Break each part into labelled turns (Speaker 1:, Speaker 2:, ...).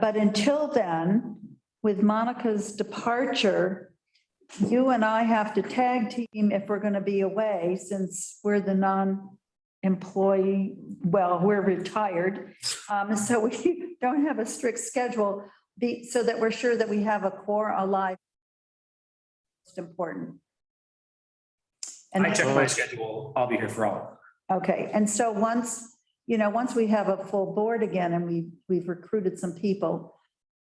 Speaker 1: But until then, with Monica's departure, you and I have to tag team if we're going to be away since we're the non-employee, well, we're retired. Um, so we don't have a strict schedule, be, so that we're sure that we have a core alive. It's important. And
Speaker 2: I check my schedule. I'll be here for all.
Speaker 1: Okay, and so once, you know, once we have a full board again and we, we've recruited some people,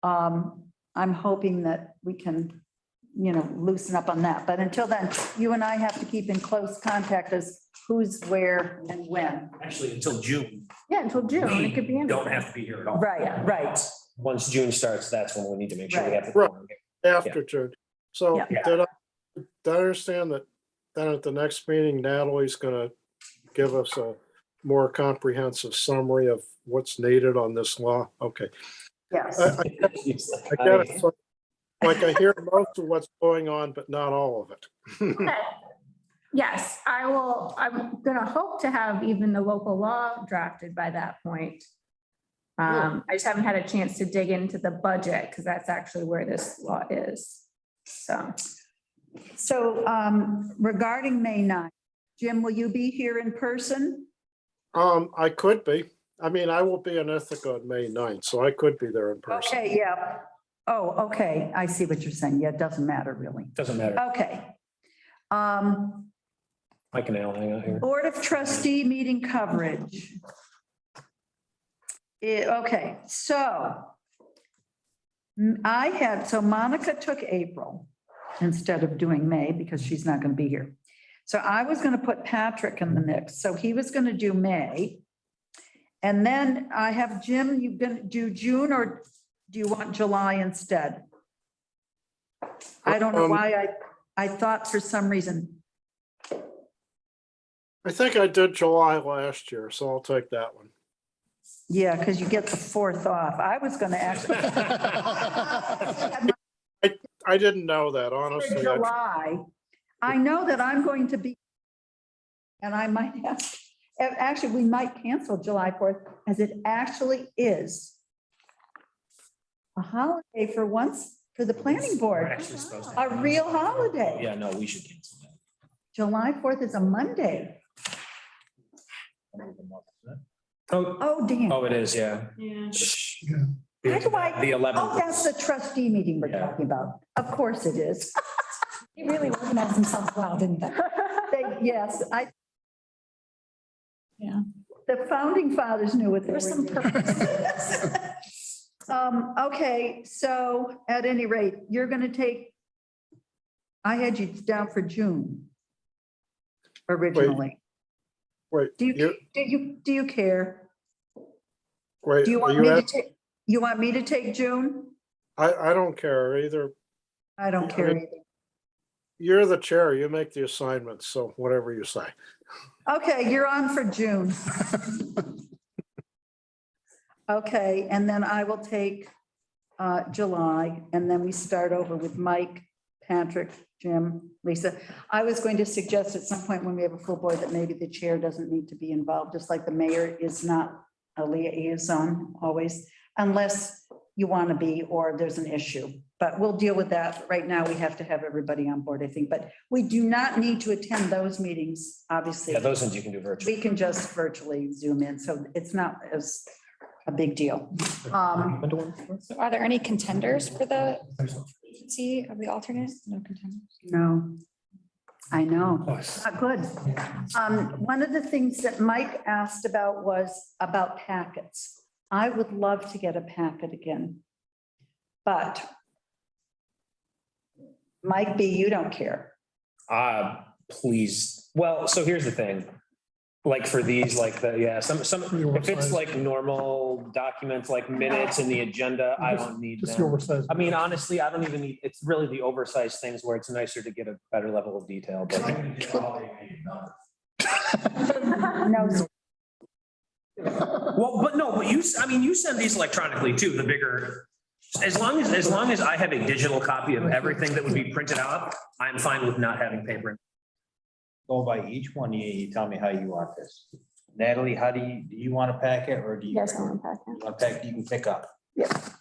Speaker 1: um, I'm hoping that we can, you know, loosen up on that. But until then, you and I have to keep in close contact as who's where and when.
Speaker 2: Actually, until June,
Speaker 3: Yeah, until June, it could be.
Speaker 2: we
Speaker 3: in.
Speaker 2: don't have to be here at all.
Speaker 1: Right, right.
Speaker 4: Once June starts, that's when we need to make sure we have.
Speaker 5: Right.
Speaker 4: the
Speaker 5: After June. So
Speaker 1: Yeah.
Speaker 5: did I, did I understand that then at the next meeting Natalie's gonna give us a more comprehensive summary of what's needed on this law? Okay.
Speaker 1: Yes.
Speaker 4: Uh,
Speaker 5: I- I- I get it. So, Like I hear most of what's going on, but not all of it.
Speaker 3: Okay. Yes, I will, I'm gonna hope to have even the local law drafted by that point. Um, I just haven't had a chance to dig into the budget, because that's actually where this law is. So,
Speaker 1: So, um, regarding May 9th, Jim, will you be here in person?
Speaker 5: Um, I could be. I mean, I will be in Ithaca on May 9th, so I could be there in person.
Speaker 1: Okay, yeah. Oh, okay. I see what you're saying. Yeah, it doesn't matter really.
Speaker 4: Doesn't matter.
Speaker 1: Okay. Um,
Speaker 4: Mike and Alan hang out here.
Speaker 1: Board of trustee meeting coverage. Eh, okay, so mm, I had, so Monica took April instead of doing May because she's not going to be here. So I was going to put Patrick in the mix. So he was going to do May. And then I have Jim, you going to do June or do you want July instead? I don't know
Speaker 5: Um,
Speaker 1: why I, I thought for some reason,
Speaker 5: I think I did July last year, so I'll take that one.
Speaker 1: Yeah, because you get the fourth off. I was going to actually.
Speaker 5: I didn't know that,
Speaker 1: For
Speaker 5: honestly. I-
Speaker 1: July, I know that I'm going to be, and I might ask, a- actually, we might cancel July 4th as it actually is a holiday for once for the planning
Speaker 2: We're
Speaker 1: board,
Speaker 2: actually supposed to.
Speaker 1: a real holiday.
Speaker 4: Yeah, no, we should cancel that.
Speaker 1: July 4th is a Monday.
Speaker 4: Oh,
Speaker 1: Oh, damn.
Speaker 4: oh, it is, yeah. Shh.
Speaker 1: How do I-
Speaker 4: The
Speaker 1: Oh,
Speaker 4: eleventh.
Speaker 1: that's the trustee meeting we're talking about. Of course it is.
Speaker 6: They really organized themselves well, didn't they?
Speaker 1: They- Yes, I.
Speaker 6: Yeah.
Speaker 1: The founding fathers knew what they were
Speaker 6: There's some
Speaker 1: doing.
Speaker 6: purpose.
Speaker 1: Um, okay, so at any rate, you're gonna take, I had you down for June originally.
Speaker 5: Wait,
Speaker 1: Do you,
Speaker 5: you,
Speaker 1: do you, do you care?
Speaker 5: wait,
Speaker 1: Do you
Speaker 5: are
Speaker 1: want me
Speaker 5: you,
Speaker 1: to
Speaker 5: at-
Speaker 1: take, you want me to take June?
Speaker 5: I, I don't care either.
Speaker 1: I don't care either.
Speaker 5: You're the chair, you make the assignments, so whatever you say.
Speaker 1: Okay, you're on for June. Okay, and then I will take uh, July, and then we start over with Mike, Patrick, Jim, Lisa. I was going to suggest at some point when we have a full board that maybe the chair doesn't need to be involved, just like the mayor is not a liaison always, unless you want to be or there's an issue. But we'll deal with that. Right now, we have to have everybody on board, I think. But we do not need to attend those meetings, obviously
Speaker 4: Yeah, those ones you can do virtually.
Speaker 1: we can just virtually zoom in, so it's not as a big deal. Um,
Speaker 6: So are there any contenders for the vacancy of the alternate? No contenders.
Speaker 1: No, I know,
Speaker 2: Nice.
Speaker 1: not good. Um, One of the things that Mike asked about was about packets. I would love to get a packet again, but Mike B., you don't care.
Speaker 4: Uh, please. Well, so here's the thing. Like for these, like the, yeah, some, some, if it's like normal documents, like minutes and the agenda, I don't need
Speaker 7: Just the
Speaker 4: them.
Speaker 7: oversized.
Speaker 4: I mean, honestly, I don't even need, it's really the oversized things where it's nicer to get a better level of detail, but.
Speaker 1: No,
Speaker 2: Well, but no, but you, s- I mean, you send these electronically too, the bigger. As long as, as long as I have a digital copy of everything that would be printed out, I'm fine with not having paper.
Speaker 8: go by each one, you, you tell me how you want this. Natalie, how do you, do you want a packet or do you?
Speaker 3: yes, Ellen Packer.
Speaker 8: You want a packet you can pick up?